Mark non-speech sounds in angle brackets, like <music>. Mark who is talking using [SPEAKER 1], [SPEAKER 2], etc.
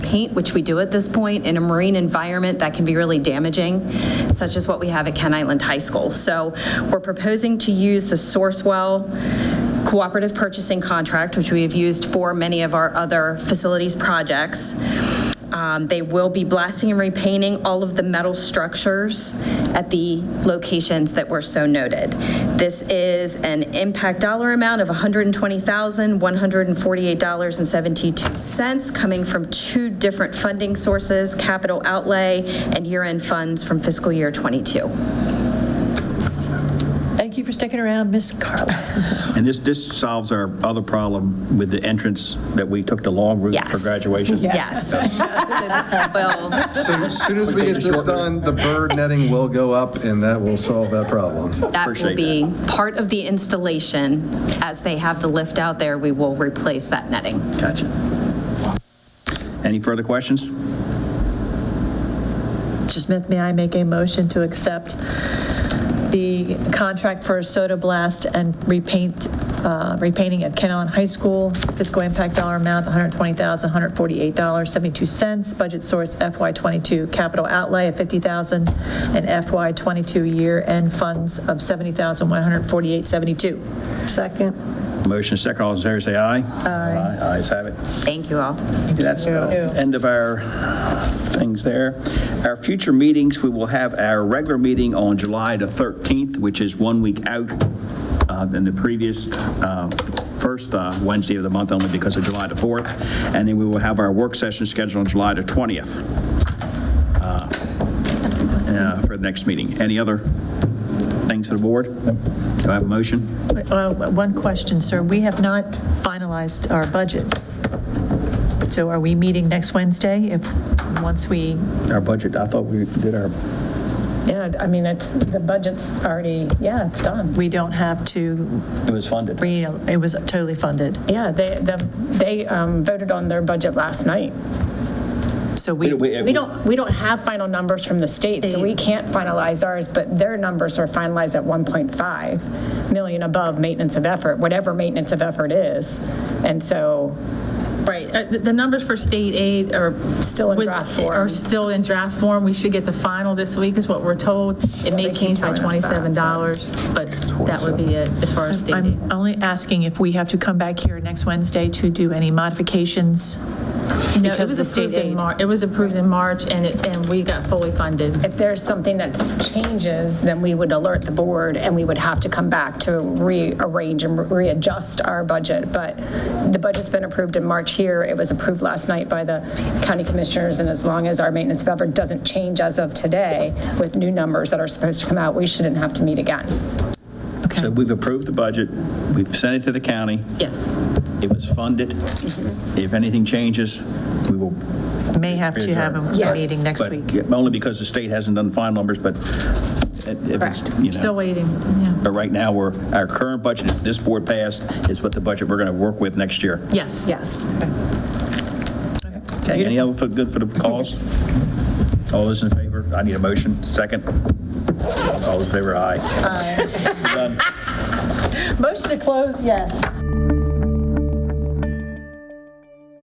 [SPEAKER 1] paint, which we do at this point, in a marine environment that can be really damaging, such as what we have at Ken Island High School. So we're proposing to use the Sourcewell Cooperative Purchasing Contract, which we have used for many of our other facilities projects. Um, They will be blasting and repainting all of the metal structures at the locations that were so noted. This is an impact dollar amount of $120,148.72 coming from two different funding sources, capital outlay and year-end funds from fiscal year '22.
[SPEAKER 2] Thank you for sticking around, Ms. Carla.
[SPEAKER 3] And this, this solves our other problem with the entrance that we took the long route for
[SPEAKER 1] Yes.
[SPEAKER 3] graduation.
[SPEAKER 1] Yes. <laughs> Just so that Bill
[SPEAKER 4] So as soon as we get this done, the bird netting will go up, and that will solve that problem.
[SPEAKER 1] That will
[SPEAKER 3] Appreciate
[SPEAKER 1] be part of the installation. As they have the lift out there, we will replace that netting.
[SPEAKER 3] Gotcha. Any further questions?
[SPEAKER 2] Mr. Smith, may I make a motion to accept the contract for Soda Blast and repaint, uh, repainting at Kenon High School, fiscal impact dollar amount, $120,148.72, budget source FY22, capital outlay of $50,000, and FY22 year-end funds of $70,148.72. Second.
[SPEAKER 3] Motion is second, all those in favor say aye. Aye. Ayes have it.
[SPEAKER 1] Thank you all.
[SPEAKER 3] That's the end of our things there. Our future meetings, we will have our regular meeting on July the 13th, which is one week out uh, than the previous uh, first uh, Wednesday of the month, only because of July the 4th. And then we will have our work session scheduled on July the 20th uh, uh, for the next meeting. Any other things to the board? Do I have a motion?
[SPEAKER 2] Uh, One question, sir. We have not finalized our budget. So are we meeting next Wednesday if, once we,
[SPEAKER 3] Our budget, I thought we did our,
[SPEAKER 5] Yeah, I mean, it's, the budget's already, yeah, it's done.
[SPEAKER 2] we don't have to,
[SPEAKER 3] it was funded.
[SPEAKER 2] re- it was totally funded.
[SPEAKER 5] Yeah, they, the- they um, voted on their budget last night.
[SPEAKER 2] So we,
[SPEAKER 5] We don't, we don't have final numbers from the state, so we can't finalize ours, but their numbers are finalized at 1.5 million above maintenance of effort, whatever maintenance of effort is. And so,
[SPEAKER 6] Right, Uh, the the numbers for state aid are.
[SPEAKER 5] Still in
[SPEAKER 6] with-
[SPEAKER 5] draft form.
[SPEAKER 6] Are still in draft form. We should get the final this week, is what we're told. It may
[SPEAKER 5] keep
[SPEAKER 6] change by
[SPEAKER 5] telling us that, but-
[SPEAKER 6] $27, but that would be it as far as state aid.
[SPEAKER 2] I'm only asking if we have to come back here next Wednesday to do any modifications.
[SPEAKER 6] No, it
[SPEAKER 2] because
[SPEAKER 6] was
[SPEAKER 2] the state
[SPEAKER 6] approved in
[SPEAKER 2] aid.
[SPEAKER 6] Mar- It was approved in March, and it, and we got fully funded.
[SPEAKER 5] if there's something that changes, then we would alert the board, and we would have to come back to rearrange and readjust our budget. But the budget's been approved in March here. It was approved last night by the county commissioners, and as long as our maintenance of effort doesn't change as of today with new numbers that are supposed to come out, we shouldn't have to meet again.
[SPEAKER 3] So we've approved the budget, we've sent it to the county,
[SPEAKER 6] Yes.
[SPEAKER 3] it was funded. If anything changes, we will.
[SPEAKER 2] May have to have a
[SPEAKER 5] Yes.
[SPEAKER 2] meeting next
[SPEAKER 3] but-
[SPEAKER 2] week.
[SPEAKER 3] yeah, Only because the state hasn't done final numbers, but. it- it was,
[SPEAKER 5] Correct.
[SPEAKER 3] you know,
[SPEAKER 6] Still waiting, yeah.
[SPEAKER 3] But right now, we're, our current budget, if this board passed, is what the budget we're going to work with next year.
[SPEAKER 6] Yes.
[SPEAKER 5] Yes.
[SPEAKER 3] Okay, Any other for- good for the cause? All those in favor? I need a motion. Second? All those in favor, aye. Done.
[SPEAKER 2] Motion to close, yes.